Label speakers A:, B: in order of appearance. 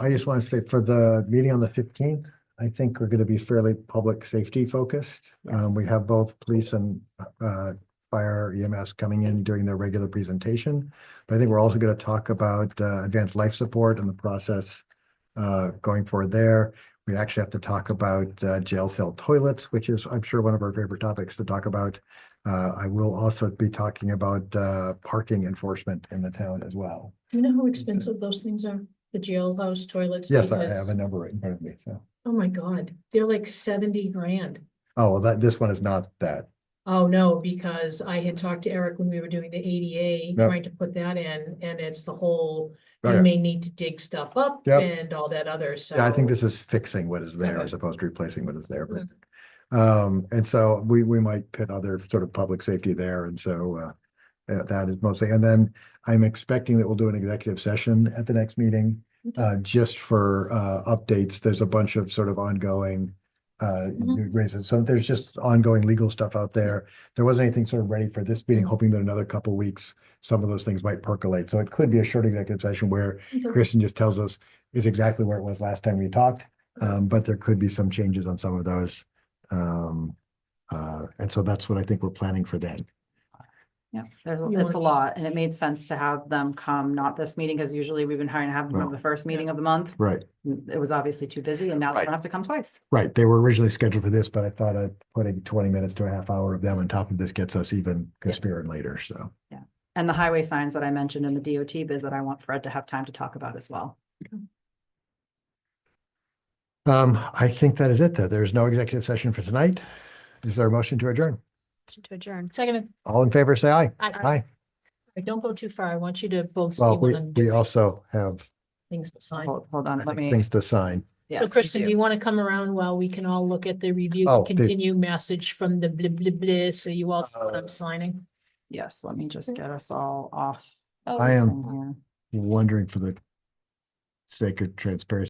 A: I just want to say for the meeting on the fifteenth, I think we're going to be fairly public safety focused. Um, we
B: Yes.
A: have both police and, uh, fire EMS coming in during their regular presentation. But I think we're also going to talk about, uh, advanced life support and the process, uh, going forward there. We actually have to talk about, uh, jail cell toilets, which is, I'm sure, one of our favorite topics to talk about. Uh, I will also be talking about, uh, parking enforcement in the town as well.
C: Do you know how expensive those things are? The jailhouse toilets?
A: Mm-hmm. Yes, I
C: because-
A: have a number right in front of me, so.
C: Oh, my God, they're like seventy grand.
A: Oh, well, that, this one is not that.
C: Oh, no, because I had talked to Eric when we were doing the ADA,
A: Yeah.
C: trying to put that in, and it's the whole, you
A: Yeah,
C: may need to dig stuff up
A: Yep.
C: and all that other, so.
A: I think this is fixing what is there as opposed to replacing what is there. but-
C: Mm.
A: Um, and so we, we might pit other sort of public safety there. And so, uh, uh, that is mostly, and then I'm expecting that we'll do an executive session at the next meeting,
C: Okay.
A: uh, just for, uh, updates. There's a bunch of sort of ongoing, uh,
C: Mhm.
A: new raises. So there's just ongoing legal stuff out there. There wasn't anything sort of ready for this meeting, hoping that another couple weeks, some of those things might percolate. So it could be a short executive session where
C: Okay.
A: Kristen just tells us is exactly where it was last time we talked. Um, but there could be some changes on some of those. Um, uh, and so that's what I think we're planning for then.
B: Yeah, there's,
C: You
B: it's
C: want-
B: a lot, and it made sense to have them come, not this meeting, because usually we've been trying to have them
A: Right.
B: on the first meeting of the month.
A: Right,
B: It was obviously too busy, and now they're
A: Right.
B: gonna have to come twice.
A: right. They were originally scheduled for this, but I thought I'd putting twenty minutes to a half hour of them on top of this gets us even conspiring later, so.
B: And the highway signs that I mentioned in the DOT biz that I want Fred to have time to talk about as well.
A: Um, I think that is it, though. There's no executive session for tonight. Is there a motion to adjourn?
D: To adjourn.
C: Second,
A: All in favor, say aye.
C: I,
A: Aye.
C: I don't go too far. I want you to both
A: Well,
C: see
A: we,
C: when
A: we also have
C: things to sign.
B: Hold, hold
A: I
B: on, let
A: think,
B: me.
A: things to sign.
B: Oh, yeah,
C: So Kristen, do
B: you-
C: you want to come around while we can all look at the review,
A: Oh, dude.
C: continue message from the blah, blah, blah, so you all know what
A: Uh,
C: I'm signing?
B: Yes, let me just get us all off.
A: I am
B: from here.
A: wondering for the sake of transparency.